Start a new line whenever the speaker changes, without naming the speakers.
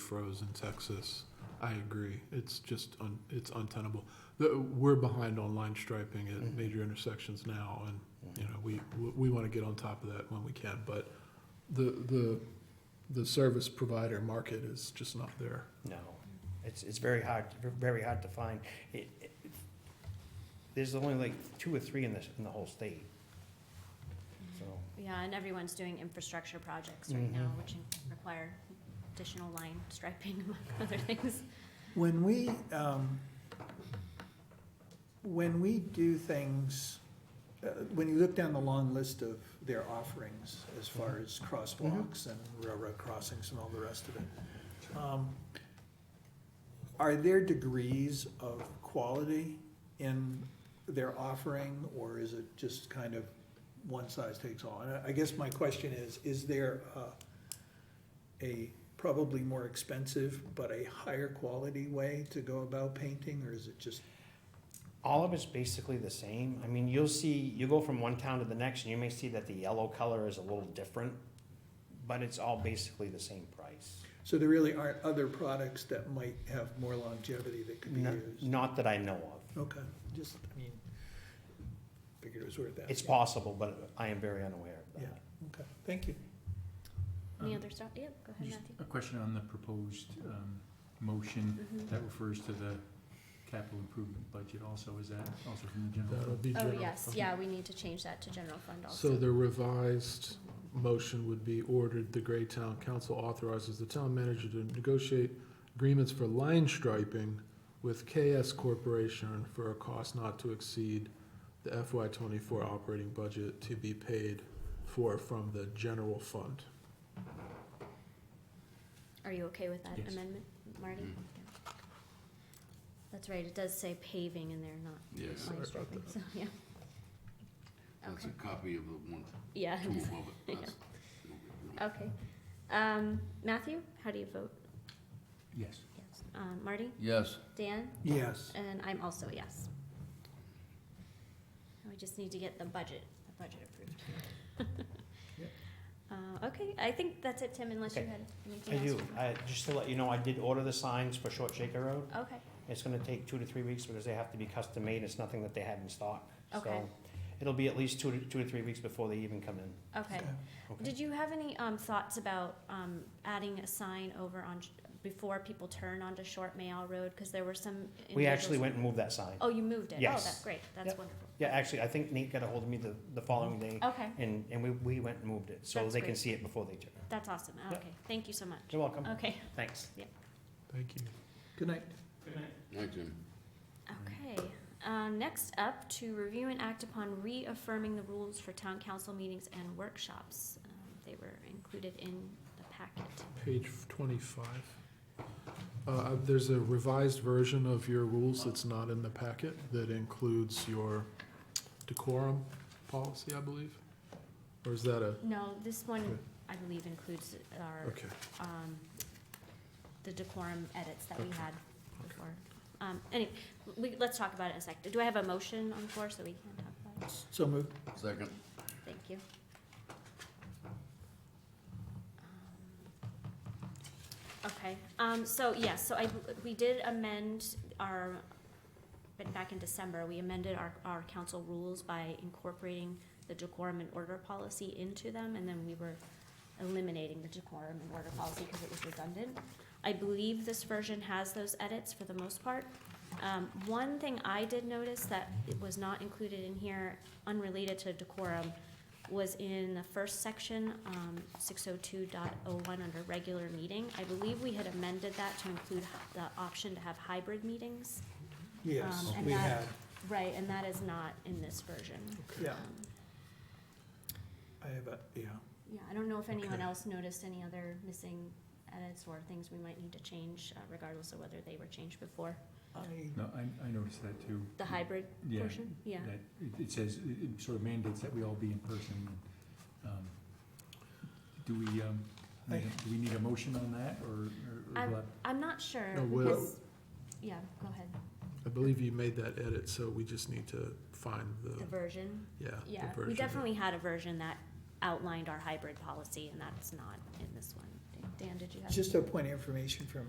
froze in Texas. I agree. It's just un, it's untenable. The, we're behind on line striping at major intersections now, and you know we we want to get on top of that when we can. But the the the service provider market is just not there.
No, it's, it's very hard, very hard to find. It- it- There's only like two or three in this, in the whole state. So,
Yeah, and everyone's doing infrastructure projects right now,
Mm-hmm.
Mhm.
which in- require additional line striping among other things.
When we, um, when we do things, uh, when you look down the long list of their offerings as far as crosswalks and railroad crossings and all the rest of it, um, are there degrees of quality in their offering, or is it just kind of one size takes all? And I- I guess my question is, is there uh, a probably more expensive but a higher quality way to go about painting, or is it just?
all of it's basically the same. I mean, you'll see, you go from one town to the next, and you may see that the yellow color is a little different, but it's all basically the same price.
So there really aren't other products that might have more longevity that could be
No-
used?
Not that I know of.
Okay, just, I mean, figured it was worth that.
It's possible, but I am very unaware of
Yeah.
that.
Okay, thank you.
Any
Um,
other stuff? Yeah, go ahead,
Just
Matthew.
a question on the proposed um, motion
Mhm.
that refers to the capital improvement budget also. Is that also from the general?
That'll
fund?
be
Oh,
general
yes,
fund.
yeah, we need to change that to general fund also.
So the revised motion would be ordered, the Gray Town Council authorizes the town manager to negotiate agreements for line striping with KS Corporation for a cost not to exceed the FY twenty-four operating budget to be paid for from the general fund.
Are you okay with that
Yes.
amendment, Marty?
Mm-hmm.
Yeah. That's right, it does say paving in there, not
Yes,
Sorry
line
about
striping,
that.
so, yeah.
that's
Okay,
a copy of the one,
yeah,
two above it. That's-
okay. Um, Matthew, how do you vote?
Yes.
Yes. Um, Marty?
Yes,
Dan?
Yes,
And I'm also a yes. And We just need to get the budget, the budget approved.
Yep.
Uh, okay, I think that's it, Tim, unless you
Okay.
had anything
I
else.
do, I, just to let you know, I did order the signs for Short Shaker Road.
Okay,
It's gonna take two to three weeks because they have to be custom made, it's nothing that they had in stock. So
Okay.
It'll be at least two to, two to three weeks before they even come in.
okay.
Okay.
Okay.
Did you have any, um, thoughts about, um, adding a sign over on, Sh- before people turn onto Short Mayall Road? Cause there were some.
We actually
individuals-
went and moved that sign.
Oh, you moved it? Oh,
Yes.
that's great, that's
Yep.
wonderful.
Yeah, actually, I think Nate got a hold of me the, the following day
Okay,
and, and we, we went and moved it, so
Oh. That's
they can
great.
see it before they turn.
that's awesome,
Yep.
okay, thank you so much.
You're welcome,
Okay,
thanks.
Thank you.
good night.
thank you.
Okay, uh, next up, to review and act upon reaffirming the rules for town council meetings and workshops. Um, They were included in the packet.
Page twenty-five. Uh, there's a revised version of your rules that's not in the packet that includes your decorum policy, I believe? Or is that a,
No, this one,
Okay.
I believe, includes our,
okay.
um, the decorum edits that we
Okay.
had before. Um, anyway, we, let's talk about it in a sec. Do I have a motion on the floor so we can talk about it?
So moved.
Second,
Thank you. Okay, um, so, yes, so I, we did amend our, but back in December, we amended our, our council rules by incorporating the decorum and order policy into them, and then we were eliminating the decorum and order policy because it was redundant. I believe this version has those edits for the most part. Um, one thing I did notice that it was not included in here, unrelated to decorum, was in the first section, um, six oh two dot oh one under regular meeting. I believe we had amended that to include hy- the option to have hybrid meetings.
Yes,
Um, and
we had,
that- Right, and that is not in this version.
yeah,
Um,
I have a, yeah.
Yeah, I don't know if anyone
Okay.
else noticed any other missing edits or things we might need to change, uh, regardless of whether they were changed before.
I
No, I, I noticed that too.
The hybrid
Mm. Yeah,
portion, yeah,
That, it- it says, it it sort of mandates that we all be in person. Um, Do we, um,
I-
need a- do we need a motion on that or, or- or
I'm-
what?
I'm not sure,
No, we'll-
because, yeah, go ahead,
I believe you made that edit, so we just need to find the,
the version,
yeah, the
yeah,
version.
we definitely had a version that outlined our hybrid policy, and that's not in this one. Dan, did you have?
Just a point of information from